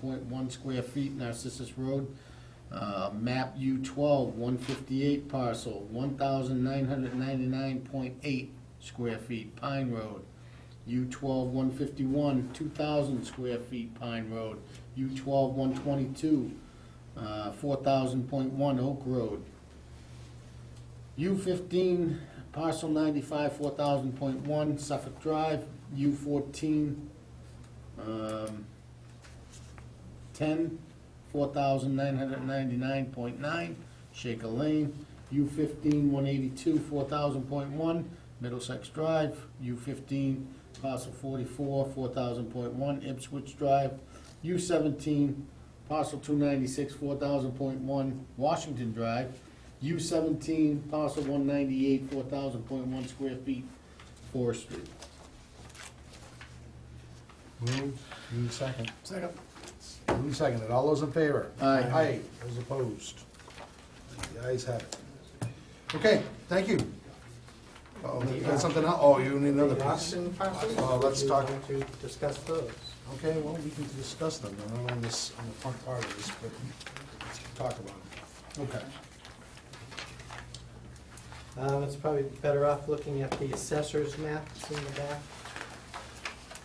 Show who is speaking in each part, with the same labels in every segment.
Speaker 1: point one square feet, Narcissus Road. Uh, map U twelve, one fifty-eight parcel, one thousand nine hundred ninety-nine point eight square feet, Pine Road. U twelve, one fifty-one, two thousand square feet, Pine Road. U twelve, one twenty-two, uh, four thousand point one, Oak Road. U fifteen, parcel ninety-five, four thousand point one, Suffolk Drive, U fourteen, um, ten, four thousand nine hundred ninety-nine point nine, Shaker Lane, U fifteen, one eighty-two, four thousand point one, Middlesex Drive, U fifteen, parcel forty-four, four thousand point one, Ipswich Drive, U seventeen, parcel two ninety-six, four thousand point one, Washington Drive, U seventeen, parcel one ninety-eight, four thousand point one square feet, Forest Street.
Speaker 2: Move, move second.
Speaker 3: Second.
Speaker 2: Move second, all those in favor?
Speaker 1: Aye.
Speaker 2: Aye, those opposed? The ayes have it. Okay, thank you. Oh, you got something else? Oh, you need another piece.
Speaker 3: Auction parcels?
Speaker 2: Well, let's
Speaker 3: Do you
Speaker 2: talk-
Speaker 3: want to discuss those.
Speaker 2: Okay, well, we can discuss them, they're not on this, on the front part of this, but let's talk about them. Okay.
Speaker 3: Um, It's probably better off looking at the assessor's maps in the back.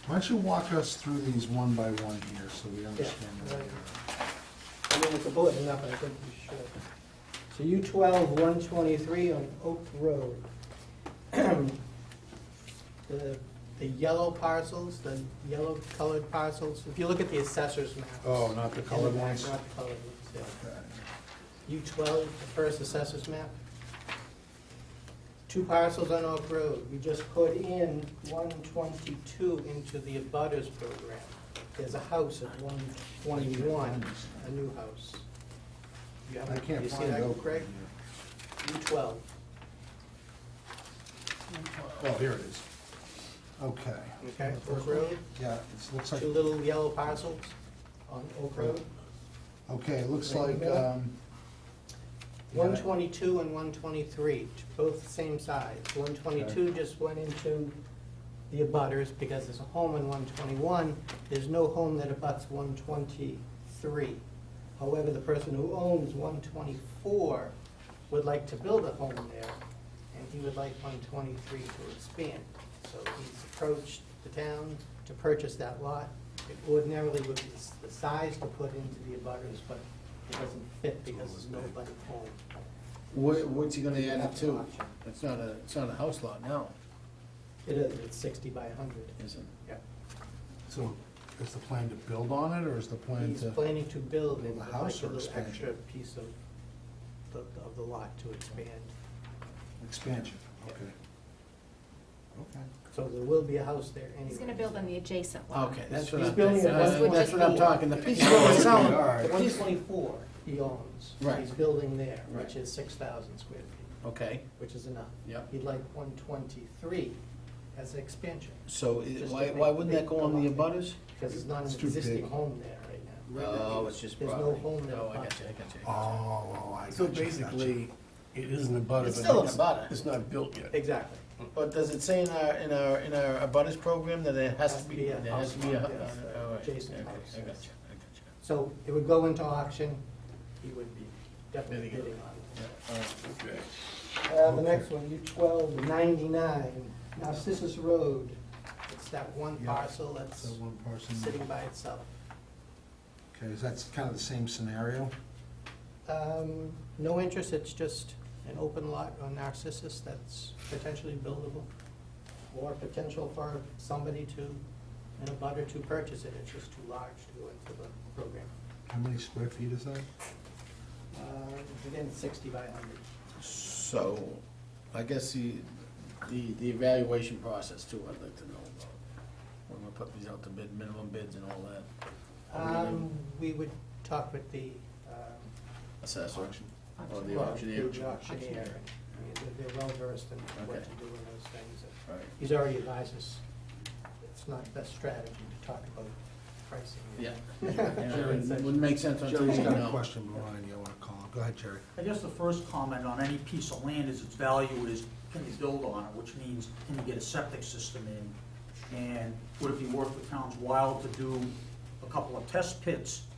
Speaker 2: Why don't you walk us through these one by one here, so we understand? what they
Speaker 3: I mean, it's a bulletin up, I think we should. So U twelve, one twenty-three on Oak Road. The, the yellow parcels, the yellow colored parcels, if you look at the assessor's maps.
Speaker 2: are. Oh, not the
Speaker 3: in
Speaker 2: colored
Speaker 3: back,
Speaker 2: ones?
Speaker 3: Not the colored ones, yeah.
Speaker 2: Okay.
Speaker 3: U twelve, the first assessor's map. Two parcels on Oak Road, we just put in one twenty-two into the abutters program. There's a house at one twenty-one, a new house. You
Speaker 2: I
Speaker 3: haven't,
Speaker 2: can't
Speaker 3: you see
Speaker 2: find
Speaker 3: that,
Speaker 2: Oak.
Speaker 3: Greg? U twelve.
Speaker 2: Oh, here it is. Okay.
Speaker 3: Okay,
Speaker 2: The
Speaker 3: Oak
Speaker 2: first one?
Speaker 3: Road,
Speaker 2: Yeah, it looks like,
Speaker 3: two little yellow parcels on Oak Road.
Speaker 2: okay, it looks
Speaker 3: Right in
Speaker 2: like,
Speaker 3: the middle?
Speaker 2: um,
Speaker 3: One twenty-two and one twenty-three, both the same size. One twenty-two just went into the abutters because there's a home in one twenty-one. There's no home that abuts one twenty-three. However, the person who owns one twenty-four would like to build a home there, and he would like one twenty-three to expand. So he's approached the town to purchase that lot. It ordinarily would be s- the size to put into the abutters, but it doesn't fit because there's nobody home.
Speaker 1: What, what's he gonna add it
Speaker 3: That's an
Speaker 1: to?
Speaker 3: option.
Speaker 1: It's not a, it's not a house lot now,
Speaker 3: It is, it's sixty by hundred.
Speaker 1: is it?
Speaker 3: Yep.
Speaker 2: so is the plan to build on it, or is the plan
Speaker 3: He's
Speaker 2: to?
Speaker 3: planning to build and
Speaker 2: The
Speaker 3: would
Speaker 2: house
Speaker 3: like a
Speaker 2: or
Speaker 3: little
Speaker 2: expansion?
Speaker 3: extra piece of, the- of the lot to expand.
Speaker 2: Expansion, okay. Okay.
Speaker 3: So there will be a house there anyway.
Speaker 4: He's gonna build on the adjacent lot.
Speaker 1: Okay, that's what
Speaker 3: He's
Speaker 1: I'm,
Speaker 3: building
Speaker 1: thinking.
Speaker 3: it
Speaker 1: that's
Speaker 3: as
Speaker 1: what
Speaker 3: would
Speaker 1: that's
Speaker 4: just
Speaker 1: what I'm
Speaker 4: be.
Speaker 1: talking, the piece that was selling,
Speaker 2: All right.
Speaker 3: The
Speaker 1: the
Speaker 3: one
Speaker 1: piece,
Speaker 3: twenty-four he owns.
Speaker 1: Right.
Speaker 3: He's building there,
Speaker 1: Right.
Speaker 3: which is six thousand square feet,
Speaker 1: okay,
Speaker 3: which is enough.
Speaker 1: Yep.
Speaker 3: He'd like one twenty-three as an expansion,
Speaker 1: so i-
Speaker 3: Just
Speaker 1: why,
Speaker 3: to
Speaker 1: why
Speaker 3: make
Speaker 1: wouldn't that
Speaker 3: big
Speaker 1: go on the
Speaker 3: lot.
Speaker 1: abutters?
Speaker 3: because there's not an
Speaker 2: It's too
Speaker 3: existing
Speaker 2: big.
Speaker 3: home there right now.
Speaker 1: Oh, it's just
Speaker 3: There's no
Speaker 1: property.
Speaker 3: home there.
Speaker 1: Oh, I got you, I got you, I got
Speaker 2: Oh, I
Speaker 5: So
Speaker 2: gotcha, gotcha.
Speaker 5: basically, it isn't a butter,
Speaker 1: It's
Speaker 5: but
Speaker 1: still an
Speaker 5: it's-
Speaker 1: abutter.
Speaker 5: It's not built yet.
Speaker 3: Exactly.
Speaker 1: you. But does it say in our, in our, in our abutters program that it has to be,
Speaker 3: a
Speaker 1: there has to be a,
Speaker 3: house
Speaker 1: all
Speaker 3: lot, yes, uh,
Speaker 1: right, okay,
Speaker 3: adjacent
Speaker 1: I got
Speaker 3: house,
Speaker 1: you, I got
Speaker 3: yes.
Speaker 1: you.
Speaker 3: So it would go into auction, he would be definitely
Speaker 1: Bidding.
Speaker 3: bidding on
Speaker 1: All right.
Speaker 5: Okay.
Speaker 3: it. Uh, the next one, U twelve ninety-nine, Narcissus Road, it's that one
Speaker 2: Yeah.
Speaker 3: parcel
Speaker 2: So
Speaker 3: that's
Speaker 2: one person,
Speaker 3: sitting by itself.
Speaker 2: okay, is that's kind of the same scenario?
Speaker 3: Um, no interest, it's just an open lot on Narcissus that's potentially buildable, or potential for somebody to, and a butter to purchase it, it's just too large to go into the program.
Speaker 2: How many square feet is that?
Speaker 3: Uh, again, sixty by hundred.
Speaker 1: So, I guess the, the, the evaluation process too, I'd like to know about. We're gonna put these out to bid, minimum bids and all that,
Speaker 3: Um, we would talk with the, um.
Speaker 1: assessor, or the
Speaker 3: well,
Speaker 1: auctioneer.
Speaker 3: The auctioneer, I mean, they're- they're well versed in what
Speaker 1: Okay.
Speaker 3: to do in those things. and
Speaker 1: Right,
Speaker 3: He's already advised us, it's not best strategy to talk about pricing.
Speaker 1: yeah. Yeah, it Wouldn't make sense on
Speaker 2: Jerry's
Speaker 1: TV,
Speaker 2: got a
Speaker 1: no.
Speaker 2: question, Ryan, you want to call, go ahead, Jerry.
Speaker 6: I guess the first comment on any piece of land is its value is, can you build on it, which means, can you get a septic system in? And would it be worth the town's while to do a couple of test pits